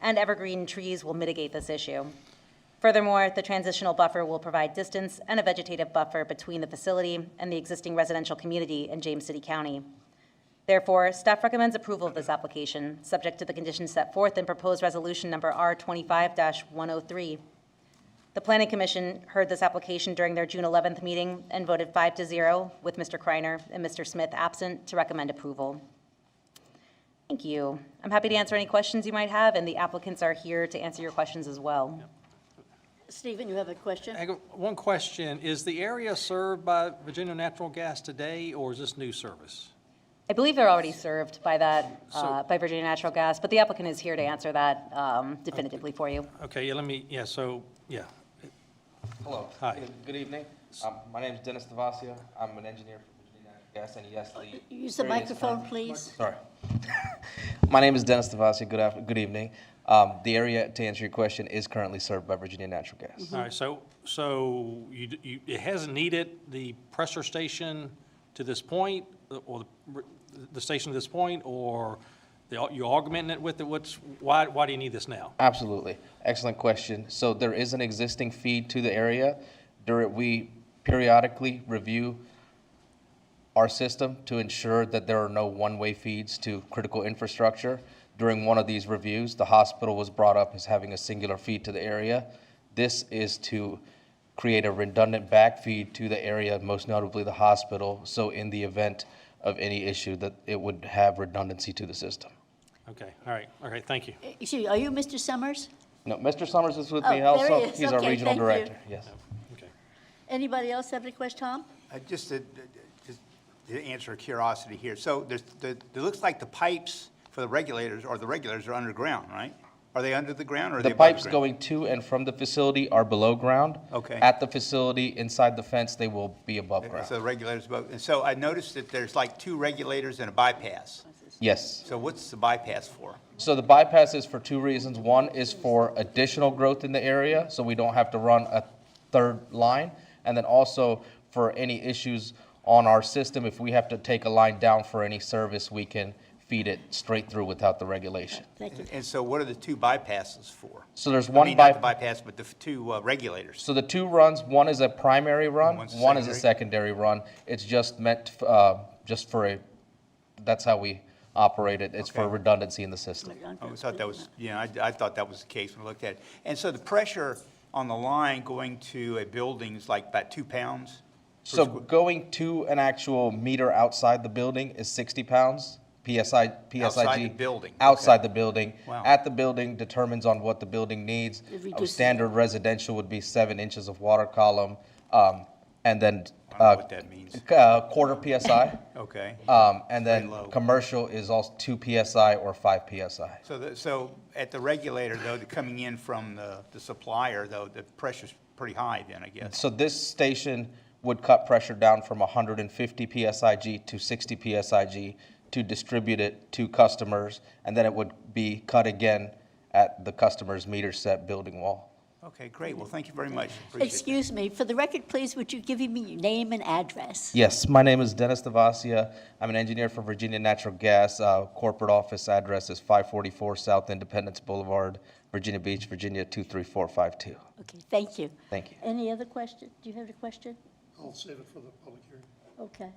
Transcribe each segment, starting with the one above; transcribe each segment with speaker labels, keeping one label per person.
Speaker 1: and evergreen trees will mitigate this issue. Furthermore, the transitional buffer will provide distance and a vegetative buffer between the facility and the existing residential community in James City County. Therefore, staff recommends approval of this application, subject to the conditions set forth in proposed resolution number R twenty-five one oh three. The Planning Commission heard this application during their June eleventh meeting and voted five to zero, with Mr. Kreiner and Mr. Smith absent, to recommend approval. Thank you. I'm happy to answer any questions you might have, and the applicants are here to answer your questions as well.
Speaker 2: Stephen, you have a question?
Speaker 3: I got One question, is the area served by Virginia Natural Gas today, or is this new service?
Speaker 1: I believe they're already served by that, uh, by Virginia Natural Gas, but the applicant is here to answer that um, definitively for you.
Speaker 3: Okay, yeah, let me, yeah, so, yeah,
Speaker 4: Hello.
Speaker 3: Hi.
Speaker 4: Good- Good evening. Um, My name is Dennis Devasio. I'm an engineer for Virginia Natural Gas, and E yes, the...
Speaker 2: Oh, Use the
Speaker 4: various
Speaker 2: microphone,
Speaker 4: firms-
Speaker 2: please.
Speaker 4: Sorry. My name is Dennis Devasio. Good after, good evening. Um, The area, to answer your question, is currently served by Virginia Natural Gas.
Speaker 3: all right, so, so you, d- you, it hasn't needed the pressure station to this point, uh, or the, the station to this point, or the- you're augmenting it with it, what's, why, why do you need this now?
Speaker 4: Absolutely. Excellent question. So there is an existing feed to the area. There, we periodically review our system to ensure that there are no one-way feeds to critical infrastructure. During one of these reviews, the hospital was brought up as having a singular feed to the area. This is to create a redundant backfeed to the area, most notably the hospital, so in the event of any issue, that it would have redundancy to the system.
Speaker 3: Okay, all right, all right, thank you.
Speaker 2: Excuse me, are you Mr. Summers?
Speaker 4: No, Mr. Summers is with
Speaker 2: Oh,
Speaker 4: me
Speaker 2: there he
Speaker 4: also.
Speaker 2: is.
Speaker 4: He's our
Speaker 2: Okay,
Speaker 4: regional
Speaker 2: thank you.
Speaker 4: director, yes.
Speaker 3: Okay.
Speaker 2: Anybody else have any question, Tom?
Speaker 5: Uh, Just to, just to answer curiosity here, so there's, the- it looks like the pipes for the regulators, or the regulators are underground, right? Are they under the ground or are they
Speaker 4: The
Speaker 5: above
Speaker 4: pipes
Speaker 5: ground?
Speaker 4: going to and from the facility are below ground.
Speaker 5: Okay.
Speaker 4: At the facility, inside the fence, they will be above
Speaker 5: Uh, So
Speaker 4: ground.
Speaker 5: the regulators above, and so I noticed that there's like two regulators and a bypass.
Speaker 4: Yes.
Speaker 5: So what's the bypass for?
Speaker 4: So the bypass is for two reasons. One is for additional growth in the area, so we don't have to run a third line. And then also for any issues on our system, if we have to take a line down for any service, we can feed it straight through without the regulation.
Speaker 2: Thank you.
Speaker 5: And so what are the two bypasses for?
Speaker 4: So there's
Speaker 5: I
Speaker 4: one
Speaker 5: mean, not the
Speaker 4: bypass.
Speaker 5: bypass, but the f- two uh, regulators.
Speaker 4: So the two runs, one is a primary run,
Speaker 5: One's a
Speaker 4: one is a secondary run. It's just meant, uh, just for a, that's how we operate it. It's for
Speaker 5: Okay.
Speaker 4: redundancy in the system.
Speaker 5: I always thought that was, yeah, I, I thought that was the case when I looked at it. And so the pressure on the line going to a building is like about two pounds? per
Speaker 4: So
Speaker 5: squ-
Speaker 4: going to an actual meter outside the building is 60 pounds, PSI, PSIG.
Speaker 5: Outside the building, okay.
Speaker 4: Outside the building.
Speaker 5: Wow.
Speaker 4: At the building determines on what the building needs.
Speaker 2: It
Speaker 4: Uh,
Speaker 2: reduces-
Speaker 4: Standard residential would be seven inches of water column, um, and then.
Speaker 5: I don't know
Speaker 4: uh,
Speaker 5: what that means.
Speaker 4: c- uh, Quarter PSI.
Speaker 5: Okay.
Speaker 4: Um, and
Speaker 5: Very
Speaker 4: then
Speaker 5: low.
Speaker 4: commercial is also two PSI or five PSI.
Speaker 5: So, the- so at the regulator, though, the coming in from the the supplier, though, the pressure's pretty high then, I guess.
Speaker 4: So this station would cut pressure down from 150 PSIG to 60 PSIG to distribute it to customers, and then it would be cut again at the customer's meter set building wall.
Speaker 5: Okay, great. Well, thank you very much. Appreciate that.
Speaker 2: Excuse me, for the record, please, would you give me your name and address?
Speaker 4: Yes, my name is Dennis Devasia. I'm an engineer for Virginia Natural Gas. Uh, corporate office address is 544 South Independence Boulevard, Virginia Beach, Virginia 23452.
Speaker 2: Okay, thank you.
Speaker 4: Thank you.
Speaker 2: Any other question? Do you have a question?
Speaker 6: I'll save it for the public hearing.
Speaker 2: Okay.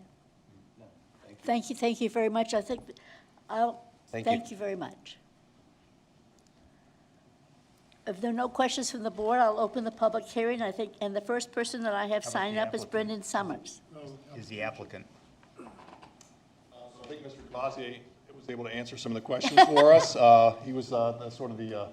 Speaker 2: Thank you, thank you very much. I think, I'll,
Speaker 4: Thank you.
Speaker 2: thank you very much. If there are no questions from the board, I'll open the public hearing, I think, and the first person that I have signed
Speaker 5: the
Speaker 2: up is
Speaker 5: applicant?
Speaker 2: Brendan Summers.
Speaker 5: Is the applicant.
Speaker 6: So I think Mr. Cavazzi was able to answer some of the questions for us. Uh, He was uh, the- sort of the, uh,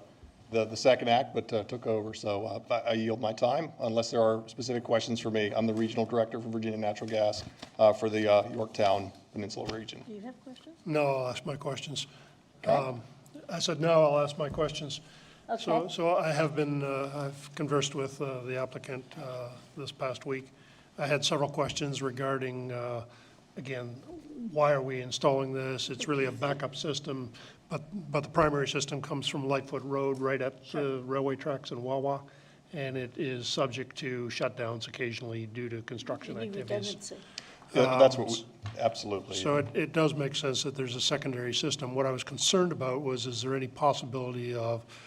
Speaker 6: the the second act, but uh, took over, so uh, I I yield my time unless there are specific questions for me. I'm the Regional Director for Virginia Natural Gas uh, for the uh, Yorktown Peninsula region.
Speaker 2: Do you have questions?
Speaker 7: No, I'll ask my questions. Um, I said, no, I'll ask my questions. So,
Speaker 2: Okay.
Speaker 7: so I have been, uh, I've conversed with uh, the applicant uh, this past week. I had several questions regarding, uh, again, why are we installing this? It's really a backup system, but, but the primary system comes from Lightfoot Road right at the railway tracks in Wawa, and it is subject to shutdowns occasionally due to construction
Speaker 2: Any
Speaker 7: activities.
Speaker 2: redundancy?
Speaker 6: That- That's what, we- absolutely.
Speaker 7: So it, it does make sense that there's a secondary system. What I was concerned about was, is there any possibility of